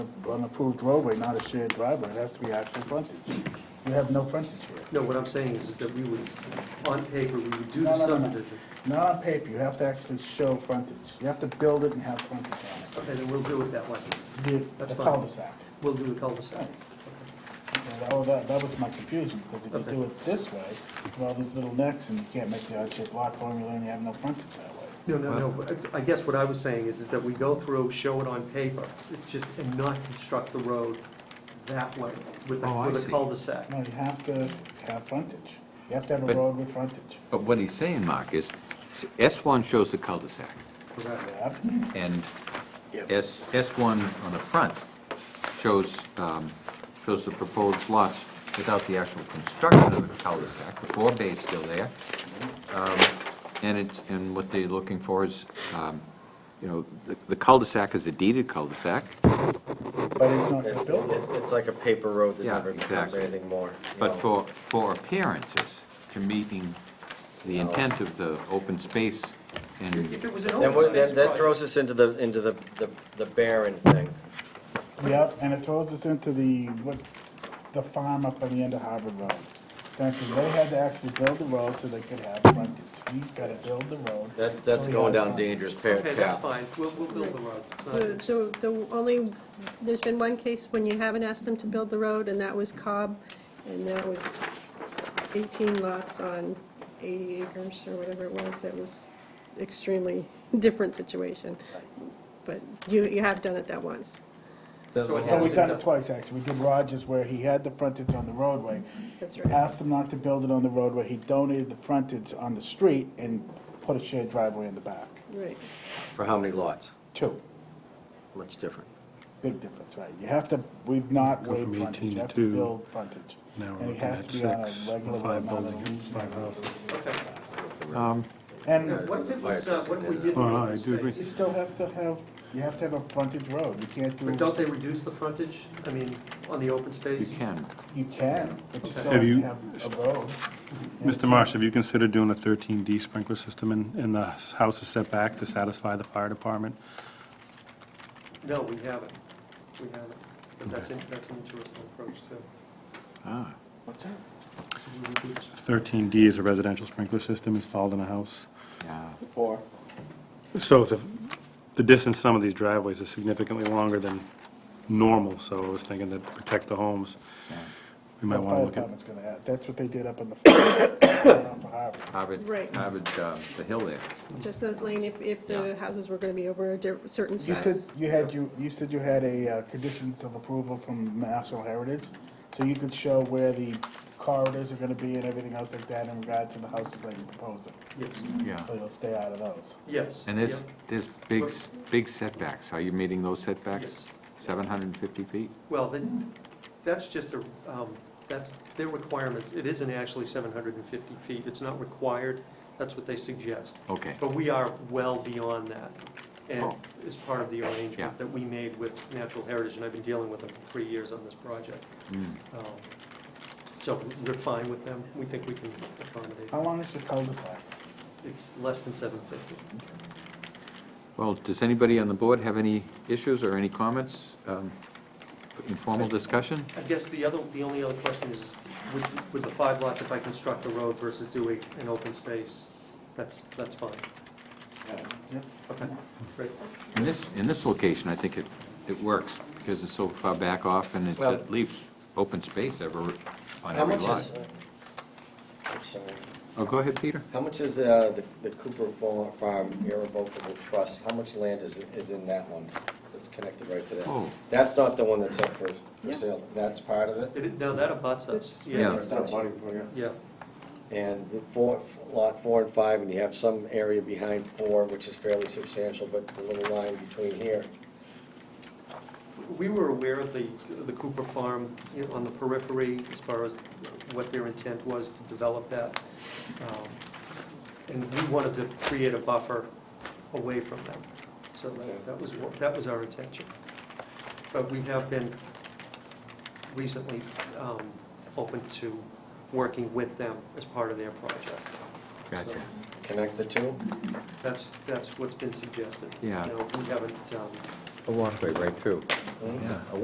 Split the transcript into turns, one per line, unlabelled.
an approved roadway, not a shared driveway, it has to be actual frontage. You have no frontage for it.
No, what I'm saying is, is that we would, on paper, we would do
No,
the
no, no, no.
subdivision.
Not on paper, you have to actually show frontage. You have to build it and have frontage on
Okay, then we'll do it that way.
it. The-
That's
The
fine.
cul-de-sac.
We'll do the cul-de-sac.
Okay, that was- That that was my confusion, because if
Okay.
you do it this way, well, there's little necks, and you can't make the odd-shaped lot formula, and you have no frontage that way.
No, no, no, but I I guess what I was saying is, is that we go through, show it on paper, it's just, and not construct the road that way with a,
Oh, I
with a
see.
cul-de-sac.
No, you have to have frontage. You have to have a
But-
road with frontage.
But what he's saying, Mark, is S1 shows the cul-de-sac,
Correct.
Yeah.
and S, S1 on the front shows, um, shows the proposed lots without the actual construction of the cul-de-sac, the four bay's still there. Um, And it's, and what they're looking for is, um, you know, the- the cul-de-sac is a deeded cul-de-sac,
But it's not
It's,
built.
it's- it's like a paper road that
Yeah,
never becomes
exactly.
anything more. you
but for,
know.
for appearances, to meeting the intent of the open space and
If it was an
Then,
open
what-
space
then that
project,
throws us into the, into the, the- the barren thing.
Yep, and it throws us into the, what, the farm up on the end of Harvard Road. Essentially, they had to actually build the road so they could have frontage. He's gotta build the road.
That's,
so
that's
he
going
has
down
frontage.
dangerous pa-
okay, that's
path.
fine, we'll, we'll build the road. It's not an issue.
The, the- the only, there's been one case when you haven't asked them to build the road, and that was Cobb, and that was 18 lots on 80 acres or whatever it was. It was extremely different situation. But you, you have done it that once.
So it
Well,
has
we've
to
done
be
it twice, actually. We did Rogers where he had the frontage on the roadway.
That's right.
Asked him not to build it on the roadway. He donated the frontage on the street and put a shared driveway in the back.
Right.
For how many lots?
Two.
Much different.
Big difference, right? You have to, we've not
Go from
waived
18
frontage, you
to
have to
two.
build frontage.
Now
And
we're
it
looking
has
at
to be on a
six,
regular
five
amount of
buildings, five houses.
Okay.
And
What if it was, uh, what if we did
Oh, no,
open
I do agree.
you
space?
still have to have, you have to have a frontage road, you
But
can't do,
don't they reduce the frontage, I mean, on the open
you
space?
can.
you can, but you still
Have
have to
you-
have a road.
Mr. Marsh, have you considered doing a 13D sprinkler system in, in the houses setback to satisfy the fire department?
No, we haven't, we haven't, but that's, in- that's an interesting approach too.
Ah.
What's that?
So we would do this.
13D is a residential sprinkler system installed in a house.
Yeah,
Or,
So the, the distance some of these driveways is significantly longer than normal, so I was thinking that to protect the homes, we
the
might want to
fire
look at.
department's gonna have, that's what they did up in the. For Harvard.
Harvard,
Right.
Harvard, uh, the hill there.
Just that lane, if, if
Yeah.
the houses were going to be over a di- certain
You said,
size.
you had, you, you said you had a, uh, conditions of approval from National Heritage, so you could show where the corridors are gonna be and everything else like that in regard to the houses that you're proposing.
Yes,
Yeah.
So you'll stay out of those.
yes.
And there's,
yep,
there's big, s- big setbacks. Are you meeting those setbacks?
Yes.
Seven hundred and fifty feet?
Well, then, that's just a, um, that's their requirements, it isn't actually 750 feet, it's not required, that's what they suggest.
Okay,
But we are well beyond that, and
Oh.
is part of the
Yeah.
arrangement that we made with Natural Heritage, and I've been dealing with them for three years on this project.
Mm.
Um, So we're fine with them, we think we can accommodate,
How long is your cul-de-sac?
it's less than 750.
Well, does anybody on the board have any issues or any comments? Um, Informal discussion?
I guess the other, the only other question is, with, with the five lots, if I construct a road versus doing an open space, that's, that's fine.
Yep.
Okay, great.
In this, in this location, I think it, it works because it's so far back off and it
Well-
it leaves open space ever, on
How
every
much is,
lot.
uh, I'm sorry.
Oh, go ahead, Peter.
how much is uh, the the Cooper Fa- Farm irrevocable trust? How much land is, is in that one that's connected right to that?
Oh,
That's not the one that's up for, for
Yeah.
sale. That's part of it?
It- it- Now, that abuts us,
Yeah.
yeah. Yeah,
And the four, lot four and five, and you have some area behind four, which is fairly substantial, but the little line between here.
we were aware of the, the Cooper Farm you know, on the periphery, as far as what their intent was to develop that. Um, And we wanted to create a buffer away from them, so that, that was, what- that was our intention. But we have been recently um, open to working with them as part of their project.
gotcha.
Connect the two?
That's, that's what's been suggested.
Yeah.
You know, we haven't, um,
A walkway right through.
Hmm?
Yeah, a